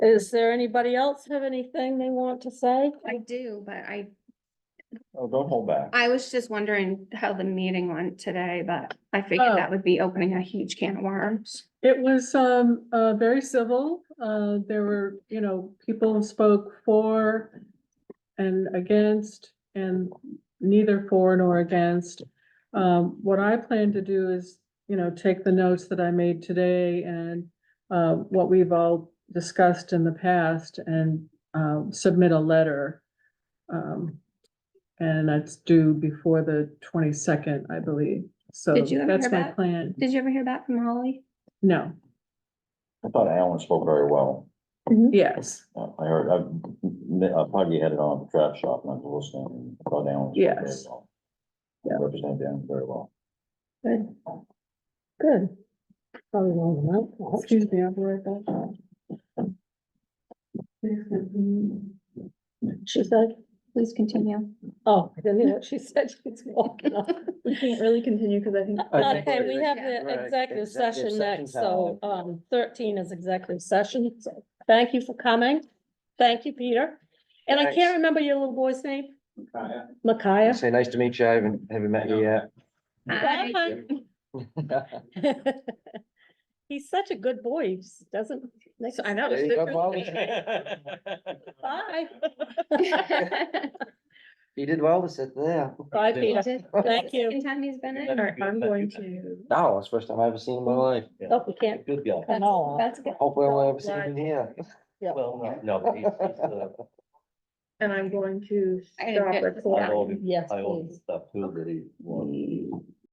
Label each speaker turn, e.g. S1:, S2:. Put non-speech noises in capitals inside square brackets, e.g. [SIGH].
S1: Is there anybody else have anything they want to say?
S2: I do, but I,
S3: Oh, don't hold back.
S2: I was just wondering how the meeting went today, but I figured that would be opening a huge can of worms.
S4: It was um uh very civil. Uh there were, you know, people spoke for and against and neither for nor against. Um what I plan to do is, you know, take the notes that I made today and uh what we've all discussed in the past and um submit a letter. Um and that's due before the twenty-second, I believe. So
S2: Did you ever
S4: that's
S2: hear
S4: my
S2: back?
S4: plan.
S2: Did you ever hear back from Holly?
S4: No,
S3: I thought Alan spoke very well.
S4: yes.
S3: Uh, I heard, I, I probably had it on the trap shop and I was listening. and I thought Alan spoke very
S4: Yes.
S3: well.
S4: Yeah.
S3: Represented Alan very well.
S1: Good. Good. Probably long enough. I hope so.
S4: Excuse me, I'll be right back.
S1: She said,
S2: Please continue. [LAUGHS]
S1: oh, I didn't hear what she said. [LAUGHS] She's walking off.
S5: We can't really continue because I think.
S3: I think
S1: Okay, we
S3: we're-
S1: have
S3: Right,
S1: the executive
S3: executive
S1: session
S3: session's
S1: next,
S3: out.
S1: so, um, thirteen is executive session, so, thank you for coming. Thank you, Peter. And I can't
S6: Thanks.
S1: remember your little boy's name, Micaiah.
S6: Say, nice to meet you. I haven't, haven't met you
S1: [LAUGHS]
S6: yet.
S2: Hi.
S1: Bye. [LAUGHS] He's such a good boy, he just doesn't. I know.
S6: There you go, Molly.
S1: Bye.
S6: You did well to sit there.
S1: Bye, Peter. Thank you.
S2: Second time he's been in.
S5: All right, I'm going to.
S6: No, it's the first time I've ever seen in my life.
S1: Oh, we can't.
S6: Good girl.
S1: cut all off.
S2: That's good.
S6: Hopefully I'll ever see him here.
S7: Well, no, no, but he's, he's uh, the,
S5: And I'm going to
S2: I
S5: stop
S2: get-
S5: recording.
S7: I own,
S1: Yes,
S7: I own
S1: please.
S7: stuff too that he wants.